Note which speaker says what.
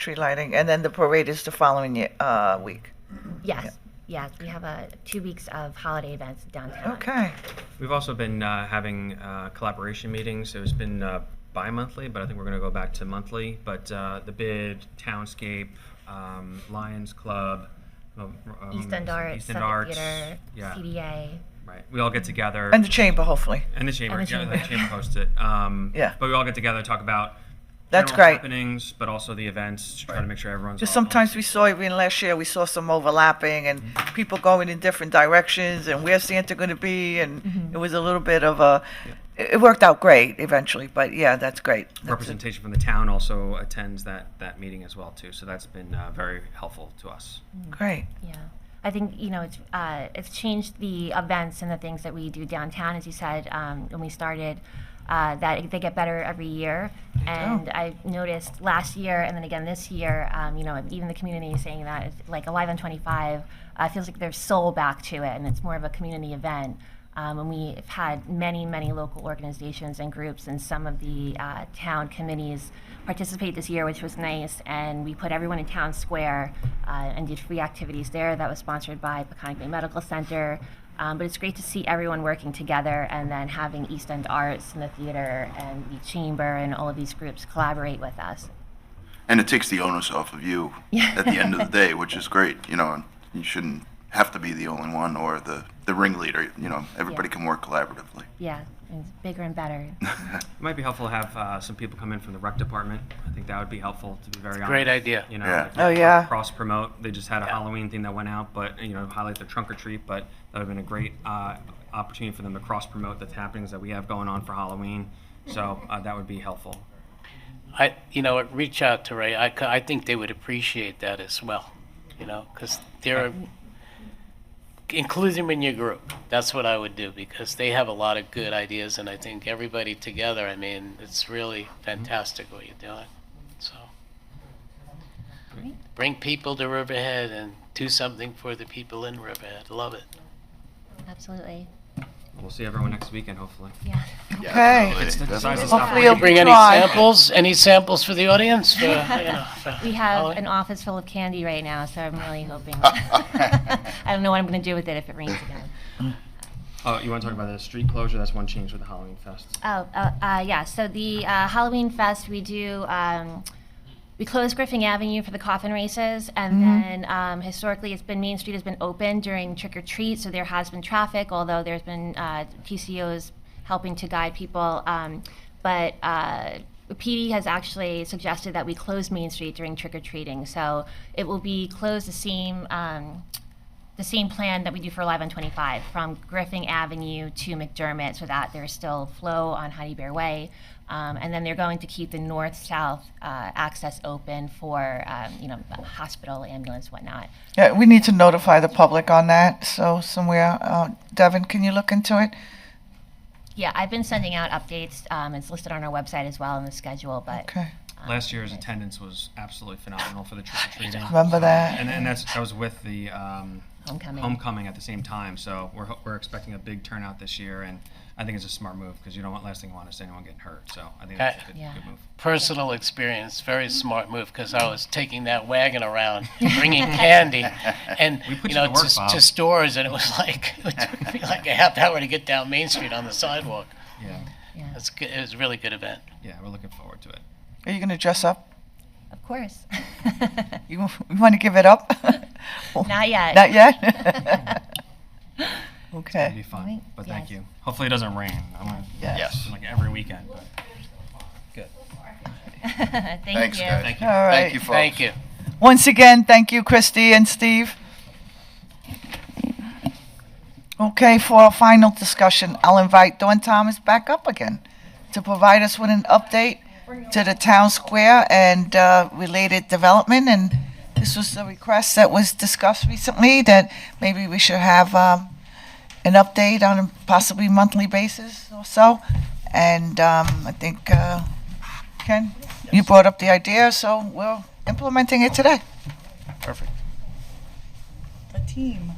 Speaker 1: tree lighting, and then the parade is the following ye- uh, week.
Speaker 2: Yes, yes, we have a, two weeks of holiday events downtown.
Speaker 1: Okay.
Speaker 3: We've also been uh, having uh, collaboration meetings. It's been uh, bi-monthly, but I think we're going to go back to monthly. But uh, the bid, Townscape, um, Lions Club, um,
Speaker 2: East End Arts,
Speaker 3: East End
Speaker 2: Suffolk
Speaker 3: Arts,
Speaker 2: Theater,
Speaker 3: yeah,
Speaker 2: CDA.
Speaker 3: right. We all get together
Speaker 1: And the chamber, hopefully.
Speaker 3: and the chamber,
Speaker 2: And the
Speaker 3: yeah,
Speaker 2: chamber.
Speaker 3: the chamber hosts it. Um,
Speaker 1: Yeah.
Speaker 3: but we all get together talk about
Speaker 1: That's
Speaker 3: general
Speaker 1: great.
Speaker 3: happenings, but also the events. to Try to make sure everyone's
Speaker 1: Just
Speaker 3: all-
Speaker 1: sometimes we saw, even last year, we saw some overlapping and people going in different directions and where's Santa going to be? And it was a little bit of a, it it worked out great eventually, but yeah, that's great. That's it.
Speaker 3: representation from the town also attends that that meeting as well too. So that's been uh, very helpful to us.
Speaker 1: Great.
Speaker 2: Yeah, I think, you know, it's, uh, it's changed the events and the things that we do downtown, as you said, um, when we started, uh, that they get better every year. And I noticed last year and then again this year, um, you know, even the community is saying that, it's like Alive on 25, uh, feels like there's soul back to it and it's more of a community event. Um, and we've had many, many local organizations and groups and some of the uh, town committees participate this year, which was nice. And we put everyone in town square uh, and did free activities there. That was sponsored by Peconic Bay Medical Center. Um, but it's great to see everyone working together and then having East End Arts and the theater and the chamber and all of these groups collaborate with us.
Speaker 4: And it takes the onus off of you at the end of the day, which is great, you know, and you shouldn't have to be the only one or the, the ringleader, you know, everybody
Speaker 2: Yeah.
Speaker 4: can work collaboratively.
Speaker 2: Yeah, it's bigger and better.
Speaker 3: It might be helpful to have uh, some people come in from the rec department. I think that would be helpful to be very honest.
Speaker 5: Great idea.
Speaker 3: You know,
Speaker 4: Yeah.
Speaker 3: like,
Speaker 1: Oh, yeah.
Speaker 3: Cross promote. They just had a Halloween thing that went out, but you know, highlight the trunk or treat. But that would have been a great uh, opportunity for them to cross promote the happenings that we have going on for Halloween. So uh, that would be helpful.
Speaker 5: I, you know, reach out to Ray. I, c- I think they would appreciate that as well, you know, because they're, include them in your group. That's what I would do because they have a lot of good ideas and I think everybody together, I mean, it's really fantastic what you're doing, so. Bring people to Riverhead and do something for the people in Riverhead. Love it.
Speaker 2: Absolutely.
Speaker 3: We'll see everyone next weekend, hopefully.
Speaker 2: Yeah.
Speaker 1: Okay.
Speaker 4: It's
Speaker 3: the
Speaker 4: definitely.
Speaker 3: size of
Speaker 1: Hopefully
Speaker 3: Stop.
Speaker 1: you'll
Speaker 5: Bring
Speaker 1: be
Speaker 5: any
Speaker 1: dry.
Speaker 5: samples, any samples for the audience? for, you know, for
Speaker 2: We have
Speaker 5: Halloween?
Speaker 2: an office full of candy right now, so I'm really hoping. I don't know what I'm going to do with it if it rains again.
Speaker 3: Oh, you want to talk about the street closure? That's one change with the Halloween fest.
Speaker 2: Oh, uh, uh, yeah. So the uh, Halloween Fest, we do. Um, we close Griffin Avenue for the coffin races, and then um, historically, it's been Main Street has been open during trick or treat, so there has been traffic. Although there's been uh, PCOs helping to guide people, um, but. Uh, PD has actually suggested that we close Main Street during trick or treating, so it will be closed the same um, the same plan that we do for Live on 25 from Griffin Avenue to McDermott so that there's still flow on Honey Bear Way. Um, and then they're going to keep the north south uh, access open for um, you know hospital, ambulance, whatnot.
Speaker 1: Yeah, we need to notify the public on that, so somewhere, uh, Devin, can you look into it?
Speaker 2: Yeah, I've been sending out updates. Um, it's listed on our website as well in the schedule, but um,
Speaker 1: Okay,
Speaker 3: Last year's attendance was absolutely phenomenal for the trick or treating.
Speaker 1: remember that?
Speaker 3: And, and that's, that was with the um,
Speaker 2: homecoming.
Speaker 3: homecoming at the same time. So we're, ho- we're expecting a big turnout this year. And I think it's a smart move because you don't want, last thing you want is anyone getting hurt. So I think that's a good,
Speaker 2: Yeah.
Speaker 3: good move.
Speaker 5: personal experience, very smart move because I was taking that wagon around, bringing candy, and
Speaker 3: We put
Speaker 5: you
Speaker 3: you
Speaker 5: know
Speaker 3: to work,
Speaker 5: to,
Speaker 3: Bob.
Speaker 5: to stores, and it was like it took me like a half hour to get down Main Street on the sidewalk.
Speaker 3: Yeah.
Speaker 5: It's good. It was a really good event.
Speaker 3: Yeah. We're looking forward to it.
Speaker 1: Are you gonna dress up?
Speaker 2: Of course.
Speaker 1: You, you wanna give it up?
Speaker 2: Not yet.
Speaker 1: Not yet?
Speaker 3: It'll be
Speaker 1: Okay,
Speaker 3: fun.
Speaker 2: Right.
Speaker 3: But thank
Speaker 2: Yes.
Speaker 3: you. Hopefully it doesn't rain. I'm gonna,
Speaker 1: Yes.
Speaker 3: Like every weekend. But good.
Speaker 2: Thank
Speaker 4: Thanks,
Speaker 2: you.
Speaker 4: guys.
Speaker 3: Thank
Speaker 1: all
Speaker 3: you.
Speaker 1: right.
Speaker 4: Thank you, folks.
Speaker 5: Thank you.
Speaker 1: Once again, thank you, Christy and Steve. Okay, for our final discussion, I'll invite Dawn Thomas back up again to provide us with an update to the town square and uh, related development. And this was the request that was discussed recently, that maybe we should have um, an update on a possibly monthly basis or so. And um, I think, uh, Ken, you brought up the idea, so we're implementing it today.
Speaker 5: Perfect.
Speaker 6: a team.